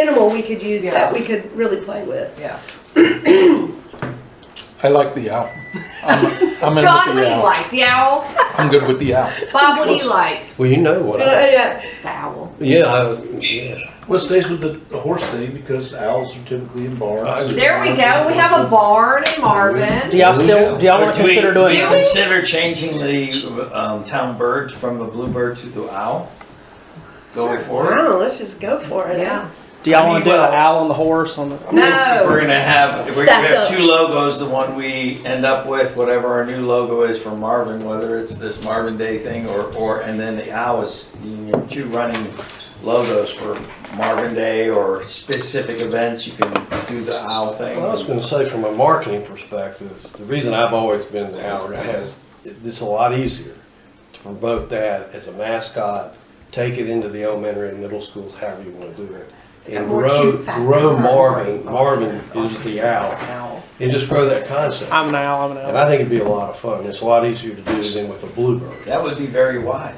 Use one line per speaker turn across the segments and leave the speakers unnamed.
animal we could use that
Yeah.
we could really play with.
Yeah.
I like the owl. I'm, I'm in
John, what
with
do
the
you
owl.
like? The owl?
I'm good with the owl.
Bob, what do
What's-
you like?
Well, you know what
Uh,
I,
yeah.
The owl.
yeah, I, yeah.
Well, it stays with the, the horse thing because owls are typically in
I-
barns.
There we go. We have a barn in
Do
Marvin.
y'all still, do y'all wanna
Do we-
consider
Do you
doing,
consider changing the um, town bird from the bluebird to the owl? Going forward?
Wow, let's just go for it.
Yeah.
do y'all
I
wanna
mean,
do the
well-
owl on the horse on the?
If We're
No.
gonna have, if we're gonna
Stacked
have
up.
two logos, the one we end up with, whatever our new logo is for Marvin, whether it's this Marvin Day thing or, or, and then the owl is, you know, two running logos for Marvin Day or specific events, you can do the owl thing.
Well, I was going to say, from a marketing perspective, the reason I've always been the Owl Guy is it's a lot easier to promote that as a mascot, take it into the elementary and middle schools, however you want to do it. And
More
grow,
cute factor.
grow Marvin, Marvin is the owl,
Owl.
and just grow that concept.
I'm an owl, I'm an
And
owl.
I think it'd be a lot of fun. It's a lot easier to do than with a bluebird.
That would be very wise.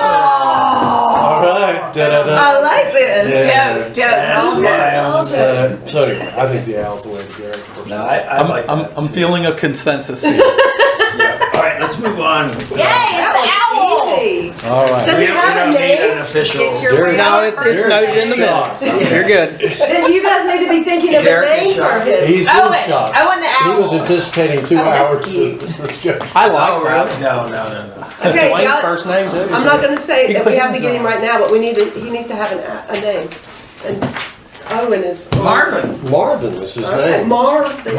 Oh!
All right. da-da-da.
I like this.
Yeah.
Jokes, jokes,
That's
all
why
jokes.
I'm-
all jokes.
Uh, So anyway, I think the owl's the way to go.
No, I, I
I'm,
like
I'm,
that.
I'm feeling a consensus here.
Yeah. All right, let's move on.
Yay, it's
That
an
was
owl!
easy.
All
Does
right.
it
We don't-
have a
we don't need
name?
an official.
It's your
You're-
real
No, it's, it's
person.
noted in the minutes. You're good.
Then you guys need to be thinking of a
Derek is
name for
shocked.
him.
He's
Oh,
in
and-
shock.
oh, and the
He
owl.
was anticipating two
Oh, that's
hours to
cute.
discuss.
I
Oh,
like that.
really? No, no, no, no.
Okay,
Dwayne's
y'all,
first name too.
I'm not gonna say
You
that
put
we have to
his
get him
on.
right now, but we need to, he needs to have an, a- a name. And Owen is.
Marvin.
Marvin was his
Okay,
name.
Marv. the owl.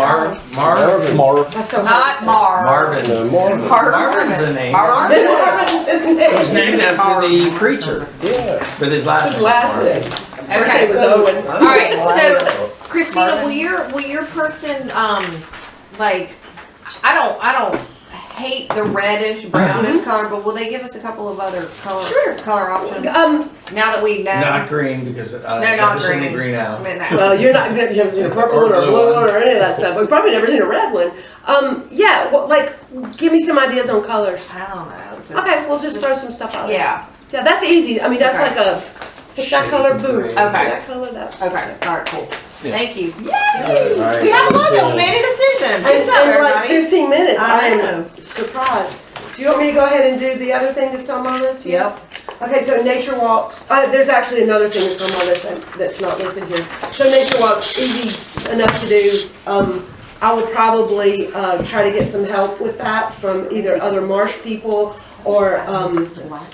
Marv. Marv.
Marv.
That's so hard to
Not
say.
Marv.
Marvin.
No, Marvin.
Marvin.
Marvin's a name.
Marvin.
It was
Marvin's
named after the creature,
Yeah.
but his last
His
name. was
last
Marvin.
name. First name was Owen.
All
right, so- Christina, will your, will your person, um, like, I don't, I don't hate the reddish, brownish color, but will they give us a couple of other color,
Sure.
color options?
Um,
Now that we know.
Not green because uh,
They're
I've
not
never seen a
green.
green owl.
But no.
well, you're not, you haven't seen a purple one or a
blue
blue
one.
one or any of that stuff. We've probably never seen a red one. Um, yeah, well, like, give me some ideas on colors.
I don't know. just-
Okay, we'll just throw some stuff out.
Yeah,
Yeah, that's easy. I mean, that's like
Okay.
a, pick that
Shades
color,
of
boom.
gray.
Pick
Okay.
That color, that.
okay, all right, cool.
Yeah.
Thank you.
All right.
We have a logo, we made a decision.
And
Good
in
job,
like
everybody.
fifteen minutes, I
I know.
am surprised. Do you want me to go ahead and do the other thing that's on my list here?
Yep.
Okay, so nature walks, uh, there's actually another thing that's on my list that- that's not listed here. So nature walks, easy enough to do. Um, I would probably, uh, try to get some help with that from either other marsh people or, um,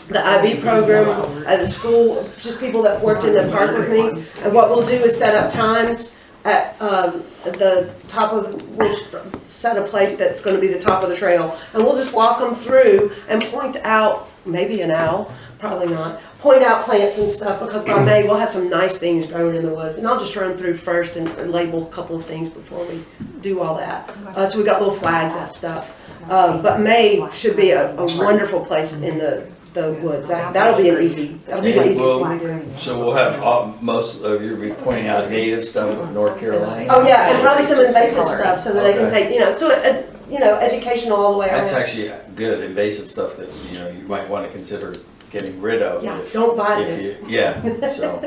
the IB program at the school, just people that worked in the park with me. And what we'll do is set up times at, um, at the top of, we'll s- set a place that's gonna be the top of the trail. And we'll just walk them through and point out, maybe an owl, probably not, point out plants and stuff, because by May, we'll have some nice things growing in the woods. And I'll just run through first and label a couple of things before we do all that. Uh, so we got little flags and stuff. Uh, but May should be a, a wonderful place in the, the woods. That, that'll be an easy, that'll be the easiest one to do.
So we'll have all, most of you be pointing out native stuff of North Carolina.
Oh, yeah, and probably some invasive stuff, so that they can
Okay.
say, you know, so, uh, you know, educational all the way
That's
around.
actually good invasive stuff that, you know, you might want to consider getting rid of.
Yeah,
if-
don't buy
if
this.
you- Yeah, so.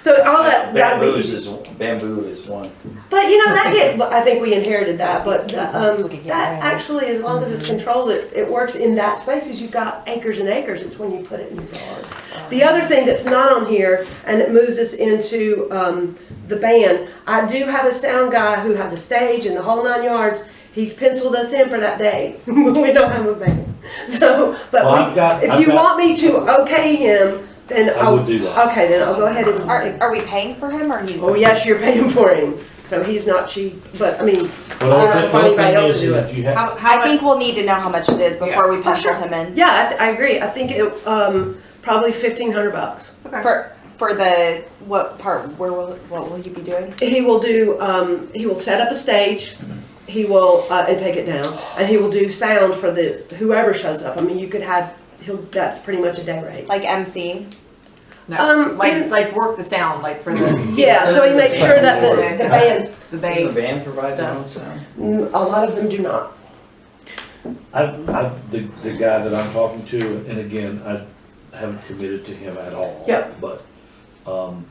So all that, that'll be
Bamboo
easy.
is, bamboo is one.
But you know that get. I think we inherited that, but um, that actually, as long as it's controlled, it, it works in that spaces. You've got acres and acres. It's when you put it in your yard. The other thing that's not on here, and it moves us into um, the band. I do have a sound guy who has a stage and the whole nine yards. He's penciled us in for that day. we don't have a band, so but
Well,
we,
I've got-
if
I've
you
got-
want me to okay him, then
I would do that.
Okay, then I'll go ahead and.
Are, are we paying for him or he's?
Oh, yes, you're paying for him, so he's not cheap, but, I mean,
But all
I
that-
don't
the
find
only
anybody
thing
else
is,
to do
is
it.
you have,
How, Oh, how,
I think we'll need to know how much it is before we pencil
sure.
him in.
yeah, I, th- I agree, I think it, um, probably fifteen hundred bucks.
For for the what part? Where will what will you be doing?
He will do, um, he will set up a stage, he will, uh, and take it down, and he will do sound for the, whoever shows up, I mean, you could have, he'll, that's pretty much a day rate.
Like MC?
Um,
like, like work the sound, like for the.
Yeah, so he makes sure that the, the band,
The
Does
bass.
the band provide their
stuff.
own sound?
mm, a lot of them do not.
I've, I've, the, the guy that I'm talking to, and again, I haven't committed to him at all.
Yeah.
But, um,